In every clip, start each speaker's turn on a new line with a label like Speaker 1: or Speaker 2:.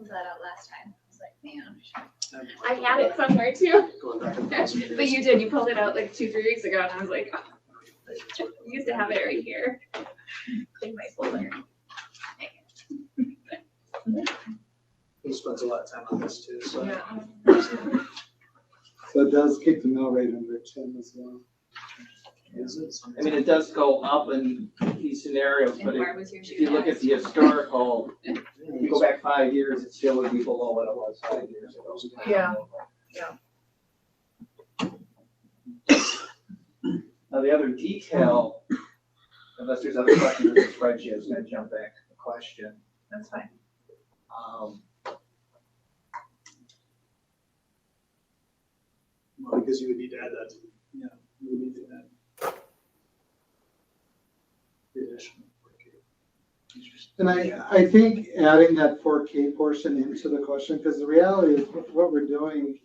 Speaker 1: that out last time. I was like, man. I should-
Speaker 2: I had it somewhere too,
Speaker 3: Going back and forth.
Speaker 2: but you did, you pulled it out like two, three weeks ago and I was like, oh, I used to have it right here. In my folder.
Speaker 3: He spends a lot of time on this too, so.
Speaker 4: So it does keep the mill rate under ten as well.
Speaker 3: Is it?
Speaker 5: I mean, it does go up in these scenarios,
Speaker 1: And
Speaker 5: but if
Speaker 1: where was your
Speaker 5: if
Speaker 1: shoe?
Speaker 5: you look at the historical, if you go back five years, it still would be below what it was five years ago.
Speaker 6: Yeah,
Speaker 5: Now, the other detail, unless there's other questions in the spreadsheet, I was gonna jump back to the question.
Speaker 6: that's fine.
Speaker 5: Um,
Speaker 3: Well, because you would need to add that, to- yeah, you would need to add. The addition.
Speaker 4: And I, I think adding that four K portion into the question, because the reality is what what we're doing,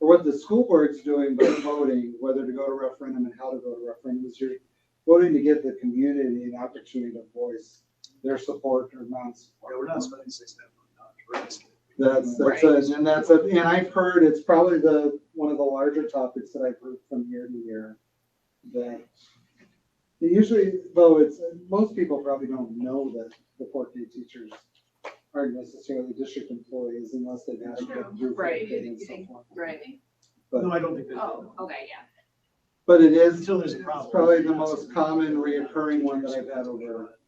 Speaker 4: or what the school board's doing by voting, whether to go to referendum and how to go to referendum, is you're voting to give the community an opportunity to voice their support or
Speaker 3: Yeah,
Speaker 4: non-support.
Speaker 3: we're not spending six thousand dollars. We're asking.
Speaker 4: That's, that's, it, and that's, it. and I've heard, it's probably the, one of the larger topics that I've heard from year to year. That usually, though, it's, most people probably don't know that the four K teachers aren't necessarily district employees unless they've had to go through.
Speaker 2: Right.
Speaker 4: and so forth.
Speaker 1: Right.
Speaker 4: But-
Speaker 3: No, I don't think that.
Speaker 1: Oh, okay, yeah.
Speaker 4: But it is
Speaker 3: Until there's a problem.
Speaker 4: it's probably the most common reoccurring one that I've had over.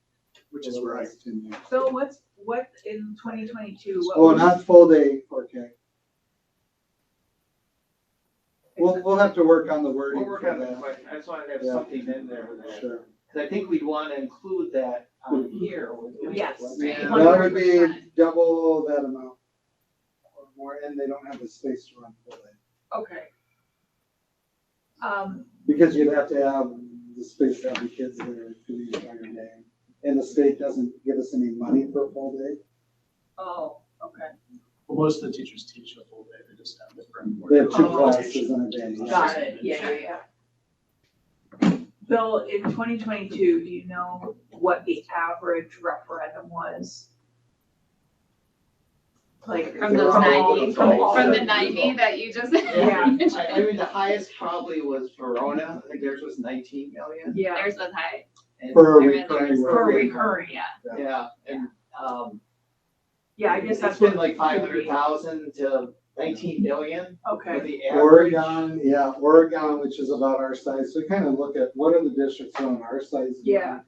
Speaker 3: Which is where I.
Speaker 4: last 10 years.
Speaker 6: So what's, what in twenty twenty-two?
Speaker 4: Oh, not full day four K. We'll, we'll have to work on the wording
Speaker 5: we'll
Speaker 4: for
Speaker 5: work on that
Speaker 4: that.
Speaker 5: question. I just wanted to have
Speaker 4: Yeah.
Speaker 5: something in there that-
Speaker 4: Sure.
Speaker 5: Cause I think we'd wanna include that on here. when we-
Speaker 6: Yes.
Speaker 5: Yeah.
Speaker 4: And That would be double that amount or more, and they don't have the space to run full day.
Speaker 6: Okay. Um,
Speaker 4: Because you'd have to have the space to have the kids there for the entire day. And the state doesn't give us any money for a full day.
Speaker 6: oh, okay,
Speaker 3: Well, most of the teachers teach a full day. They just have different.
Speaker 4: They have two
Speaker 6: Oh.
Speaker 4: classes in a day.
Speaker 6: got it, yeah, yeah, yeah. Bill, in twenty twenty-two, do you know what the average referendum was? Like.
Speaker 2: From those
Speaker 6: all-
Speaker 2: 90,
Speaker 6: From all
Speaker 2: From
Speaker 6: of
Speaker 2: the
Speaker 6: them.
Speaker 2: ninety that you just.
Speaker 6: Yeah.
Speaker 5: I, I mean, the highest probably was Verona, I think theirs was nineteen million.
Speaker 6: Yeah.
Speaker 2: Theirs was high.
Speaker 5: and-
Speaker 4: For a
Speaker 2: I read
Speaker 4: recurring.
Speaker 2: theirs.
Speaker 6: For
Speaker 4: work.
Speaker 6: recurring,
Speaker 2: Yeah.
Speaker 5: Yeah, and, um.
Speaker 6: yeah, I guess that's.
Speaker 5: It's been
Speaker 6: what
Speaker 5: like
Speaker 6: it
Speaker 5: five
Speaker 6: could be.
Speaker 5: hundred thousand to nineteen million for
Speaker 6: Okay,
Speaker 5: the average.
Speaker 4: Oregon, yeah, Oregon, which is about our size, so we kind of look at what are the districts on our size? doing?
Speaker 6: Yeah.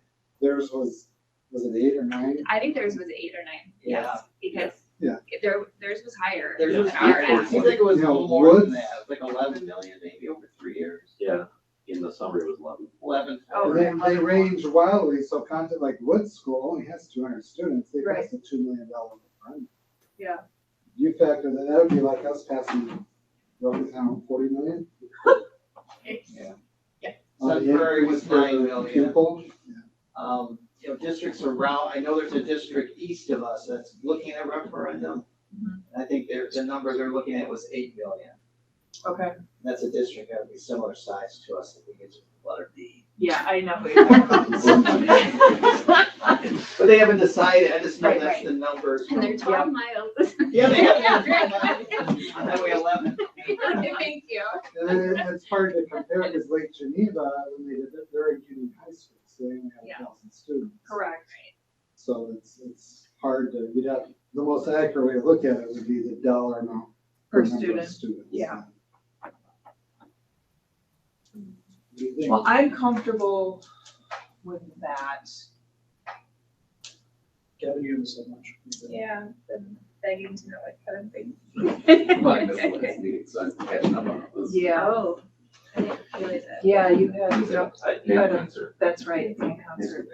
Speaker 4: Theirs was, was it eight or nine?
Speaker 2: I think theirs was eight or nine. Yes. Because.
Speaker 4: Yeah.
Speaker 2: There, theirs was higher.
Speaker 5: There's
Speaker 2: than
Speaker 5: just,
Speaker 2: our
Speaker 5: I
Speaker 2: average.
Speaker 5: think it was a
Speaker 4: You know,
Speaker 5: little more than
Speaker 4: Woods-
Speaker 5: that, It was like eleven million maybe over three years.
Speaker 7: Yeah, in the summer it was eleven.
Speaker 5: Eleven.
Speaker 6: Oh,
Speaker 4: And then they range wildly, so content like Wood School only has two hundred students, they
Speaker 6: Right.
Speaker 4: passed a two million dollar fund.
Speaker 6: Yeah.
Speaker 4: You factor that, that would be like us passing, roughly, I don't know, forty million?
Speaker 5: Yeah.
Speaker 2: Yeah.
Speaker 4: On the
Speaker 5: Sudbury was
Speaker 4: increase per
Speaker 5: nine million.
Speaker 4: Pupil,
Speaker 5: Um, you know, districts around, I know there's a district east of us that's looking at referendum.
Speaker 6: Mhm.
Speaker 2: Mm-hmm.
Speaker 5: And I think their, the number they're looking at was eight million.
Speaker 6: okay,
Speaker 5: That's a district that would be similar size to us, I think it's letter D.
Speaker 6: yeah, I know.
Speaker 5: But they haven't decided, I just know
Speaker 2: Right,
Speaker 5: that's the numbers.
Speaker 2: And they're
Speaker 5: from-
Speaker 2: twelve miles.
Speaker 5: Yeah, they
Speaker 2: Yeah,
Speaker 5: have. On Highway eleven.
Speaker 2: Thank you.
Speaker 4: and then it's hard to compare, because Lake Geneva, when they did it, they're a union high school, so they only
Speaker 2: Yeah.
Speaker 4: have a thousand students.
Speaker 6: Correct,
Speaker 4: So it's, it's hard to, you'd have, the most accurate way to look at it would be the dollar amount.
Speaker 6: per
Speaker 4: number of
Speaker 6: student.
Speaker 4: Students.
Speaker 6: Yeah.
Speaker 4: What do you think?
Speaker 6: Well, I'm comfortable with that.
Speaker 3: Gavin, you have so much.
Speaker 1: Yeah, been begging to know what kind of thing.
Speaker 7: Mine is last meeting, so I'm catching up on this.
Speaker 6: Yeah,
Speaker 1: Oh, I didn't realize that.
Speaker 6: yeah, you
Speaker 7: It's
Speaker 6: had,
Speaker 7: an upside
Speaker 6: You had a-
Speaker 7: down answer.
Speaker 6: that's right, it's in concert.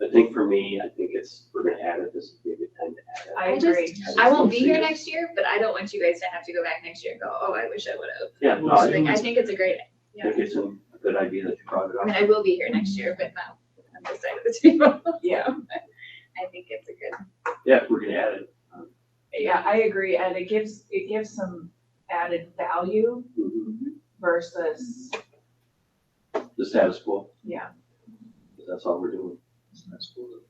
Speaker 7: I think for me, I think it's, we're gonna add it, this would be a good time to add it.
Speaker 6: I
Speaker 2: I just-
Speaker 6: agree.
Speaker 7: just
Speaker 2: I won't
Speaker 7: don't
Speaker 2: be
Speaker 7: see
Speaker 2: here
Speaker 7: it.
Speaker 2: next year, but I don't want you guys to have to go back next year and go, oh, I wish I would have.
Speaker 7: Yeah, no,
Speaker 2: Oh, I
Speaker 7: I
Speaker 2: think, I think it's a great, yeah.
Speaker 7: think it's a good idea that you brought
Speaker 2: I
Speaker 7: it
Speaker 2: mean, I
Speaker 7: up.
Speaker 2: will be here next year, but not on this side of the table.
Speaker 6: Yeah,
Speaker 2: I think it's a good,
Speaker 7: Yeah, we're gonna add it.
Speaker 6: yeah, I agree, and it gives, it gives some added value
Speaker 2: Mm-hmm.
Speaker 7: Mhm.
Speaker 6: versus,
Speaker 7: The status quo,
Speaker 6: yeah,
Speaker 7: that's all we're doing.
Speaker 3: It's nice. We'll-